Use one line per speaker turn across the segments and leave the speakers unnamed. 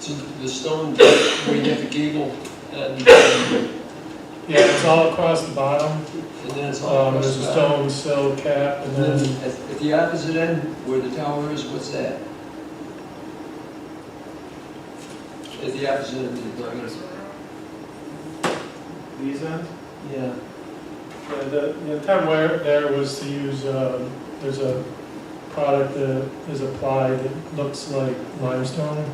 to the stone, where you have the gable, and, and
Yeah, it's all across the bottom.
then it's all
Um,
across
there's
the back.
a stone sill cap
And
and
then
then,
at, at the opposite end, where the tower is, what's that? At the opposite end of the building.
These ends?
Yeah.
yeah, the, the intent where, there was to use, um, there's a product that is applied that looks like limestone.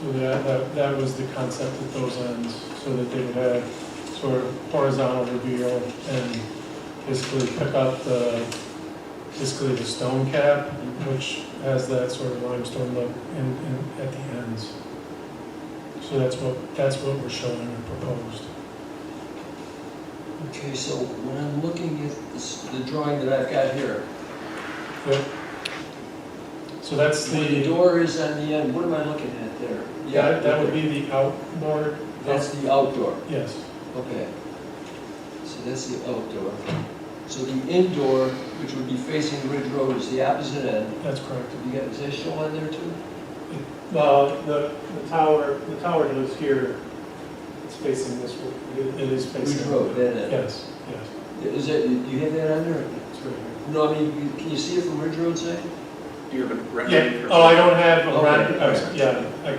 So that, that, that was the concept at those ends, so that they would have sort of horizontal reveal and basically pick up the, basically the stone cap, which has that sort of limestone look in, in, at the ends. So that's what, that's what we're showing and proposed.
Okay, so when I'm looking at this- the drawing that I've got here,
Yep. So that's
where the
the,
door is on the end, what am I looking at there?
that, that would be the outboard,
That's the outdoor,
yes.
okay. So that's the outdoor. So the indoor, which would be facing Ridge Road, is the opposite end.
That's correct.
Have you got, is that shown on there too?
Well, the, the tower, the tower goes here, it's facing this way,
It it is
Ridge
facing.
Road, that end.
Yes, yes,
Is that, do you have that on there?
it's right here.
No, I mean, you- can you see it from Ridge Road side?
Do you have a
Yeah,
record?
oh, I don't have a
Okay.
record, oh, yeah, I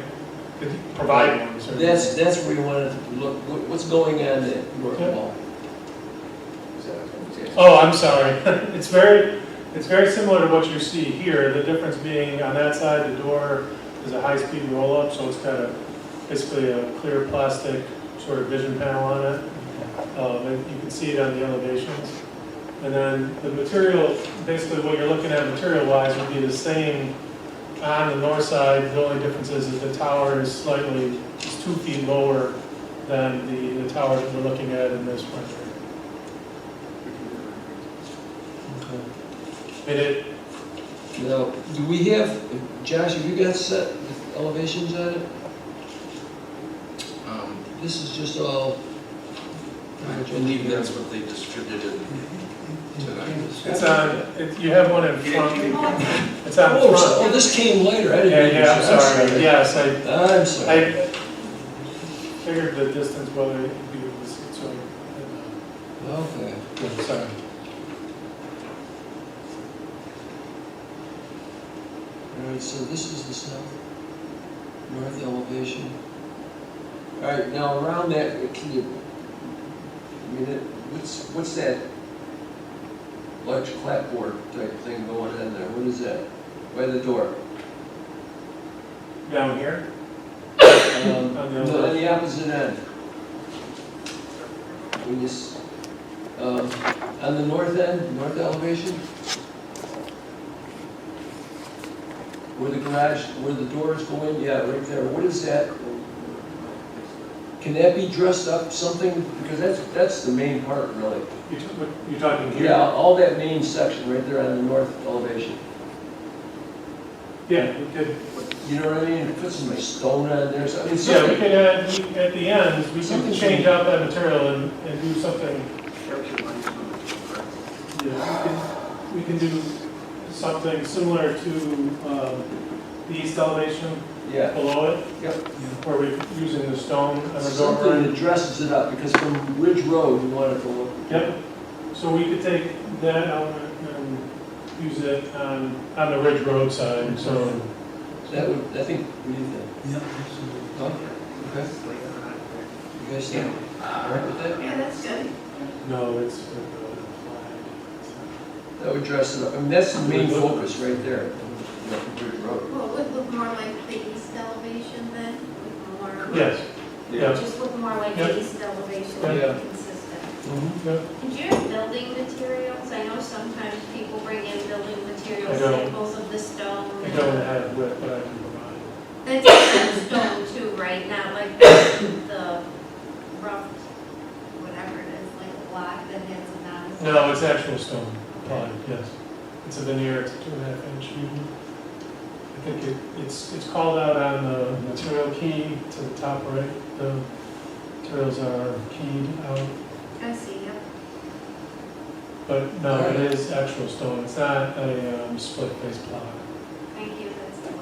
could provide one, certainly.
That's, that's where you wanted to look, What- what's going on there?
Yeah.
Well,
Oh, I'm sorry. It's very, it's very similar to what you see here. The difference being on that side, the door is a high-speed roll-up, so it's got a, basically a clear plastic sort of vision panel on it. Um, and you can see it on the elevations. And then the material, basically what you're looking at material-wise would be the same on the north side. The only difference is that the tower is slightly, is two feet lower than the, the tower that we're looking at in this rendering.
Okay.
And it,
Now, do we have, Josh, have you got set elevations on it?
Um,
This is just all.
I believe that's what they distributed tonight.
It's uh, on, it- you have one in front, it's on
Oh, so-
front.
oh, this came later, I
Yeah,
didn't.
yeah, I'm sorry, yes, I,
I'm sorry.
I figured the distance whether it be, was- so, uh,
Okay.
yeah, sorry.
All right, so this is the south, north elevation. All right, now around that, can you, I mean, it- what's, what's that large clapboard type thing going on there? What is that? By the door?
Down here?
Um,
On the
no,
other-
On the opposite end. When you, s- um, on the north end, north elevation? Where the garage, where the doors go in, yeah, right there, what is that? Can that be dressed up something, because that's, that's the main part really.
You took- what- You're talking here?
Yeah, all that main section right there on the north elevation.
Yeah, we could,
You know what I mean, put some stone on there, so, I mean,
yeah, we
something,
could add, we- at the end, we
Something-
could change out that material and, and do something. Yeah, we can, we can do something similar to, um, the east elevation
yeah.
below it.
Yep.
Where we're using the stone and the door
Something
frame.
that dresses it up, because from Ridge Road, you want it to look.
Yep. So we could take that element and use it on, on the Ridge Road side, so.
That would, I think, what do you think? Huh? Okay, you guys think, all right with that?
Yeah, that's good.
No, it's. uh,
That would dress it up, I mean, that's the main focus right there, you know, from Ridge Road.
Well, it would look more like the east elevation then, with more.
Yes. Yeah.
Just look more like
Yep.
the east elevation,
Yeah.
and consistent. And do you have building materials? I know sometimes people bring in building material
I don't.
samples of the stone.
I don't have what I can provide.
That's just stone too, right? Not like the the rough, whatever it is, like a block that has a non.
No, it's actual stone applied, yes. It's a veneer, it's a two and a half inch. I think it, it's, it's called out on the material key to the top right. The materials are keyed out.
I see, yeah.
But no, it is actual stone, it's not a um, split face block.